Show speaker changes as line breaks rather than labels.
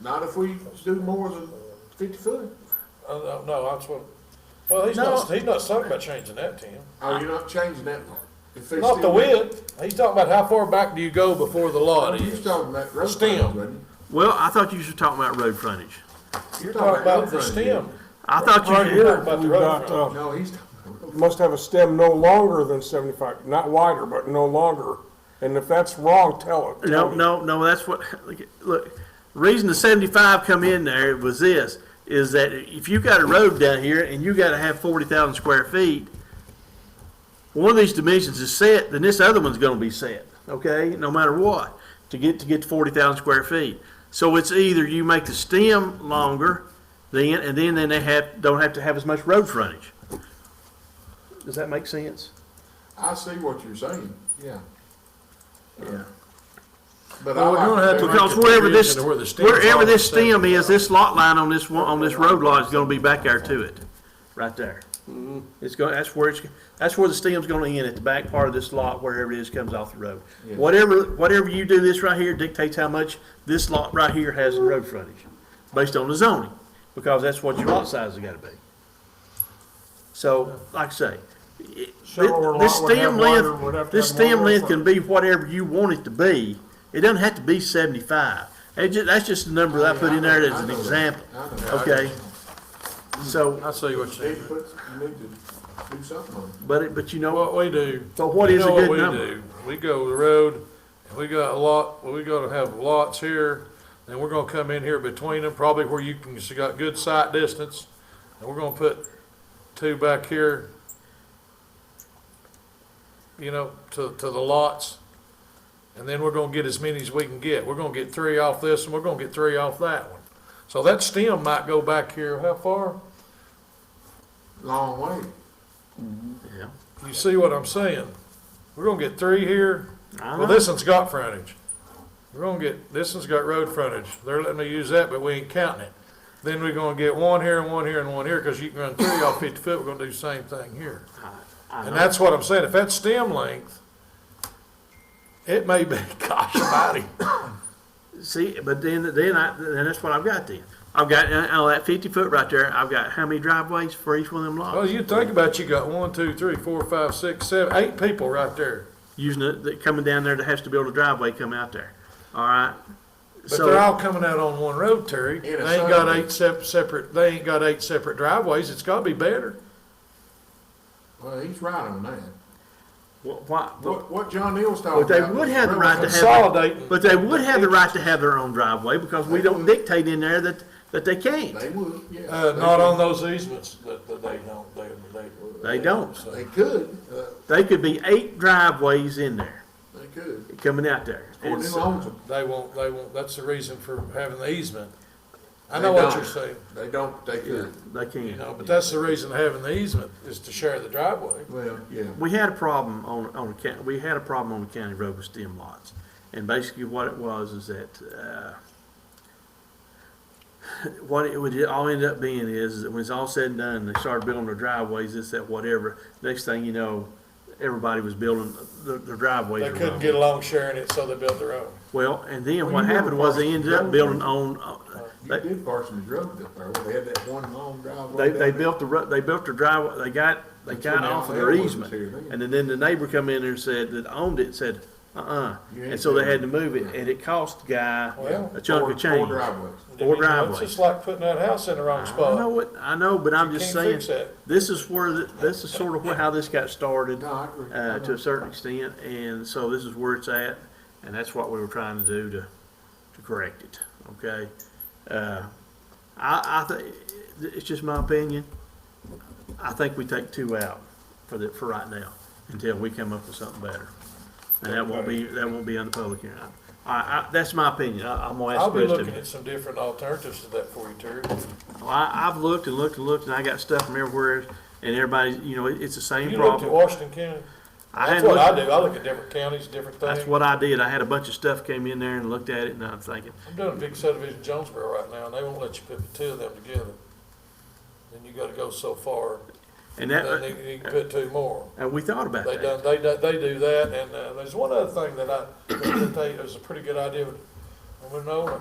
Not if we do more than fifty foot.
Uh, no, no, that's what, well, he's not, he's not talking about changing that, Tim.
Oh, you're not changing that one? If it's
Not
still-
the width, he's talking about how far back do you go before the
Oh,
lot
You was
is.
talking about road
Stem.
frontage, wasn't
Well, I thought you were talking about road frontage.
you?
You're talking about the
road frontage.
stem,
I thought you.
right here, about the
We've
road
got,
front.
uh,
No, he's talking about road
must have a stem no longer than seventy-five, not wider, but no longer. And if that's wrong, tell it.
No, no, no, that's what, look, look, reason the seventy-five come in there was this, is that if you got a road down here and you gotta have forty thousand square feet, one of these dimensions is set, then this other one's gonna be set, okay, no matter what, to get, to get to forty thousand square feet. So it's either you make the stem longer, then, and then, then they have, don't have to have as much road frontage. Does that make sense?
I see what you're saying, yeah.
Yeah.
But I
Well, we're gonna
like
have to-
that.
Because
Like the
wherever this,
bridge and where the stem's
wherever
on
this
the stem.
stem is, this lot line on this one, on this road lot is gonna be back there to it, right there. It's going, that's where it's, that's where the stem's gonna end, at the back part of this lot, wherever it is, comes off the road.
Yeah.
Whatever, whatever you do this right here dictates how much this lot right here has in road frontage, based on the zoning, because that's what your lot size has gotta be. So, like I say, it-
Shallower lot
this
would have
stem
wider- would have
length,
to
this
have more
stem
road
length can be whatever you want it to be. It doesn't have to be seventy-five. It ju- that's just the number that I put in there as an example,
I know that.
okay? So,
I see what
You
you're
need to
saying.
put- you need to do something on it.
but it, but you know what?
What we do.
So what
you
is a
know what
good
we
number?
do? We go the road, and we got a lot, well, we gonna have lots here, and we're gonna come in here between them, probably where you can, you got good sight distance. And we're gonna put two back here. You know, to, to the lots. And then we're gonna get as many as we can get. We're gonna get three off this, and we're gonna get three off that one. So that stem might go back here, how far?
Long way.
Yeah.
You see what I'm saying? We're gonna get three here.
I
Well, this one's got frontage. We're gonna get, this one's got road frontage. They're letting me use that, but we ain't counting it. Then we're gonna get one here and one here and one here, cause you can run three off fifty foot, we're gonna do the same thing here. And that's what I'm saying, if that's stem length, it may be, gosh almighty,
See, but then, then I, then that's what I've got then. I've got, uh, uh, that fifty foot right there, I've got how many driveways for each one of them
well,
lots?
you think about, it, you got one, two, three, four, five, six, seven, eight people right there.
Using it, that coming down there that has to build a driveway come out there, all right?
But
So-
they're all coming out on one road, Terry. They
In a
ain't got
circle.
eight sep- separate, they ain't got eight separate driveways. It's gotta be better.
Well, he's right on that.
Wh- Why, wh-
What, what John Neal's talking
But
about.
they would
was
have the right to
roads.
have.
Consolidating.
But they would have the right to have their own driveway, because we don't dictate in there that, that they can't.
They would, yeah.
Uh,
They
not
would.
on those easements that, that they don't, they, they.
They don't.
So-
They could, uh,
They could be eight driveways in there,
they could.
coming out there.
Or
And
new
so-
owns them.
They won't, they won't, that's the reason for having the easement. I
They
know what
don't.
you're saying,
They don't, they could.
They
you know,
can.
but that's the reason having the easement is to share the driveway.
Well, yeah.
We had a problem on, on, the county. we had a problem on the county road with stem lots. And basically what it was is that, uh, what it would all end up being is, is that when it's all said and done, they started building their driveways, this, that, whatever. Next thing you know, everybody was building their, their driveways.
They
were
couldn't
wrong.
get along sharing it, so they built their own.
Well, and then
Well,
what
you
happened
built a
was they ended up
parcel.
building on, uh,
You
they,
did Parsons Road up there, where they had that one long driveway.
they, they built the, ru- they built their driveway, they got, they
That's when
got off of their
Alabama was
easement.
here then.
And then, then the neighbor come in there and said, that owned it, said, uh-uh.
You
And
ain't
so they
doing
had to move it, and it cost the guy
Well,
a chunk of
Four
change.
driveways.
Four
You know, It's
driveways.
just like putting that house in the wrong
I
spot.
know what, I know, but I'm
You
just
can't
saying,
fix that.
this is where, the- this is sort of where- how this got started.
No, I agree.
Uh, to a certain extent, and so this is where it's at, and that's what we were trying to do to, to correct it, okay? Uh, I, I think, it's just my opinion, I think we take two out for the, for right now, until we come up with something better. And that won't be, that won't be on the public hearing. I, I, that's my opinion, I, I'm gonna ask
I'll be
the rest
looking
of
at
you.
some different alternatives to that for you, Terry.
Well, I, I've looked and looked and looked, and I got stuff from everywhere, and everybody, you know, it- it's the same
You looked at
problem.
Washington County?
I
That's
hadn't
what I
looked-
do. I look at different counties, different things.
That's what I did. I had a bunch of stuff came in there and looked at it, and I'm thinking,
I'm doing a big subdivision in Jonesboro right now, and they won't let you put the two of them together. Then you gotta go so far,
and
then
that,
you, you can put two more.
and we thought about
They done,
that.
they, do- they do that, and, uh, there's one other thing that I, that they, it was a pretty good idea, but, I don't know,